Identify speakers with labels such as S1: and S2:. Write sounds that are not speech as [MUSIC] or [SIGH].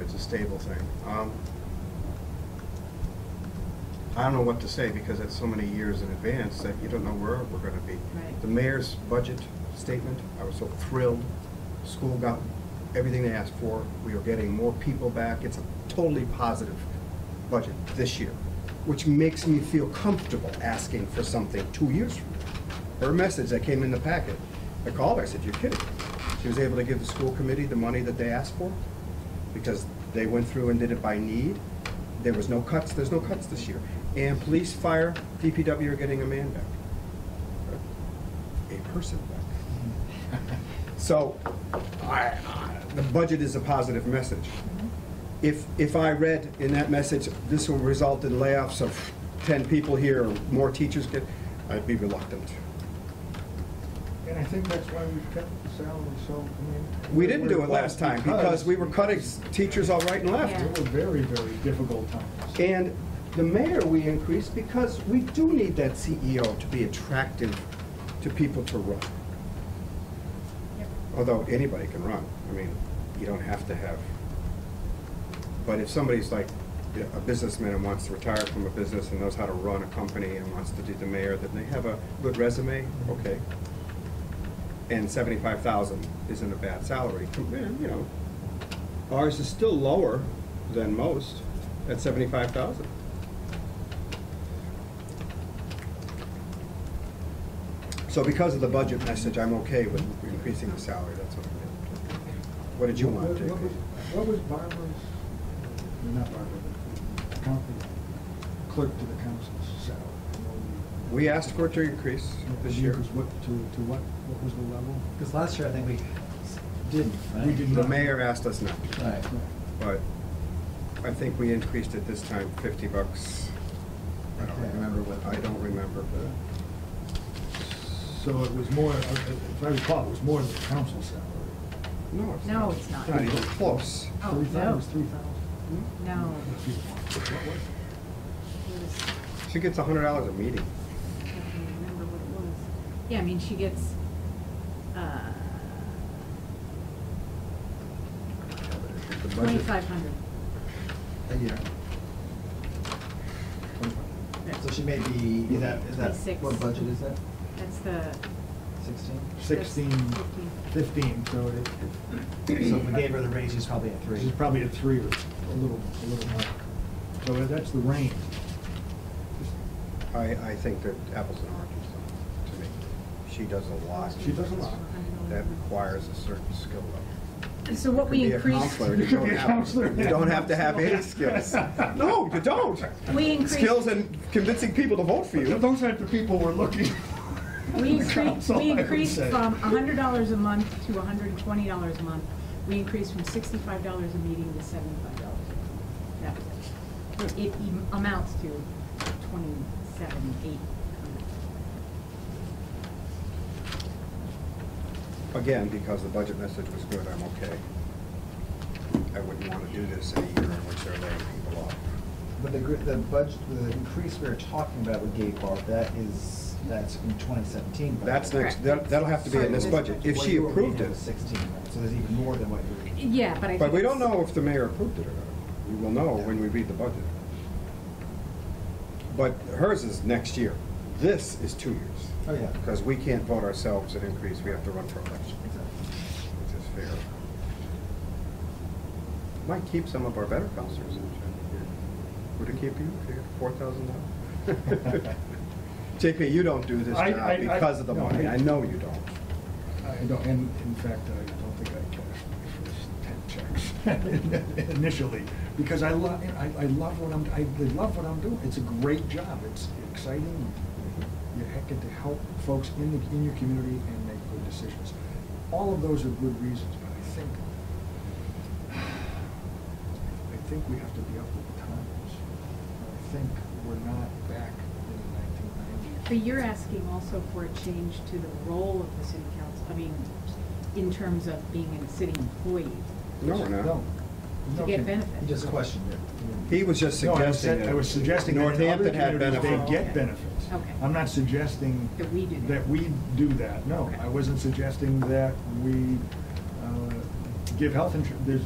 S1: it's a stable thing. Um, I don't know what to say because it's so many years in advance that you don't know where we're gonna be.
S2: Right.
S1: The mayor's budget statement, I was so thrilled. School got everything they asked for. We are getting more people back. It's a totally positive budget this year, which makes me feel comfortable asking for something two years from now. Her message that came in the packet, I called her, I said, you're kidding. She was able to give the school committee the money that they asked for because they went through and did it by need. There was no cuts, there's no cuts this year. And police, fire, DPW are getting a man back. A person back. So, I, I- the budget is a positive message. If, if I read in that message, this will result in layoffs of 10 people here, or more teachers get, I'd be reluctant.
S3: And I think that's why we've kept the salary so, I mean.
S1: We didn't do it last time because we were cutting teachers all right and left.
S2: Yeah.
S3: It were very, very difficult times.
S1: And the mayor we increased because we do need that CEO to be attractive to people to run.
S2: Yep.
S1: Although anybody can run, I mean, you don't have to have. But if somebody's like a businessman and wants to retire from a business and knows how to run a company and wants to do the mayor, then they have a good resume, okay. And seventy-five thousand isn't a bad salary, com- you know. Ours is still lower than most at seventy-five thousand. So because of the budget message, I'm okay with increasing the salary, that's what I did. What did you want,
S3: What-
S1: Jake?
S3: what was- What was Barbara's, or not Barbara, but the county clerk to the council's salary?
S1: We asked for it to increase this year.
S3: It was what, to, to what, what was the level?
S4: Because last year, I think we didn't, right?
S3: We did
S1: The
S3: not.
S1: mayor asked us not to,
S4: Right.
S1: but I think we increased it this time fifty bucks. I don't
S4: Okay, I remember what-
S1: I don't remember, but
S3: So it was more, uh, if I recall, it was more than the council's salary.
S1: no, it's
S2: No,
S1: not.
S2: it's not.
S1: Not even close.
S2: Oh,
S3: Three thou-
S2: no.
S3: It was three thousand.
S2: No.
S3: What was it?
S2: It was-
S1: She gets a hundred dollars a meeting.
S2: I can't remember what it was. Yeah, I mean, she gets, uh,
S1: The budget-
S2: twenty-five hundred.
S4: A year. So she may be, is that, is that,
S2: Twenty-six.
S4: what budget is that?
S2: That's the.
S4: Sixteen?
S3: Sixteen,
S2: that's Fifteen.
S3: fifteen, so it, it-
S4: So if we gave her the raise, she's probably at
S3: This
S4: three.
S3: is probably a three or a little, a little more. So that's the range.
S1: I, I think that apples and oranges though, to me. She does a lot.
S3: She does a lot.
S1: That requires a certain skill level.
S2: So what we
S1: Could be a
S2: increased,
S1: counselor. You
S2: [LAUGHS]
S3: [LAUGHS]
S1: don't
S3: Be a
S1: have-
S3: counselor.
S1: You don't have to have any
S3: [LAUGHS]
S1: skills. No, you don't.
S2: we increased.
S1: Skills and convincing people to vote for you.
S3: Those aren't the people we're looking.
S2: We
S3: The
S2: increased,
S3: council,
S2: we
S3: I would
S2: increased
S3: say.
S2: from hundred dollars a month to hundred and twenty dollars a month. We increased from sixty-five dollars a meeting to seventy-five dollars a month. That was it. It em- amounts to twenty-seven, eight.
S1: Again, because the budget message was good, I'm okay. I wouldn't want to do this in a year in which they're laying people off.
S4: But the, gr- the budget, the increase we were talking about with Gay Bar, that is, that's from twenty seventeen.
S1: That's next, that- that'll have to be in this budget, if she approved it.
S4: Sixteen, right? so there's even more than what you were.
S2: Yeah, but I think.
S1: But we don't
S2: it's-
S1: know if the mayor approved it or not. We will know when we read the budget. But hers is next year. This is two years,
S4: Oh, yeah.
S1: because we can't vote ourselves an increase, we have to run for election,
S4: Exactly.
S1: which is fair. Might keep some of our better counselors in here. Would it keep you if you got four thousand
S3: [LAUGHS]
S1: dollars? [LAUGHS] JP, you don't do this
S3: I- I- I-
S1: job because of the
S3: no,
S1: money.
S3: I-
S1: I know you don't.
S3: I don't, and in fact, I don't think I cashed my first ten checks [LAUGHS] initially, because I love, I, I love what I'm, I love what I'm doing. It's a great job. It's exciting. You ha- get to help folks in the, in your community and make good decisions. All of those are good reasons, but I think, [SIGHS] I think we have to be up with the times. I think we're not back in the nineteen nineties.
S2: But you're asking also for a change to the role of the city council, I mean, in terms of being a city employee
S1: No, we're not.
S3: No.
S2: to get
S3: No, Kim.
S4: You
S2: benefits.
S4: just questioned it.
S1: He was just
S3: No, I was
S1: suggesting
S3: sa-
S1: that.
S3: I was suggesting that in other
S1: Northampton had
S3: communities, they
S1: benefits.
S3: get benefits.
S2: Okay.
S3: I'm not suggesting
S2: That we do that.
S3: that we do that, no.
S2: Okay.
S3: I wasn't suggesting that we uh, give health insurance, there's,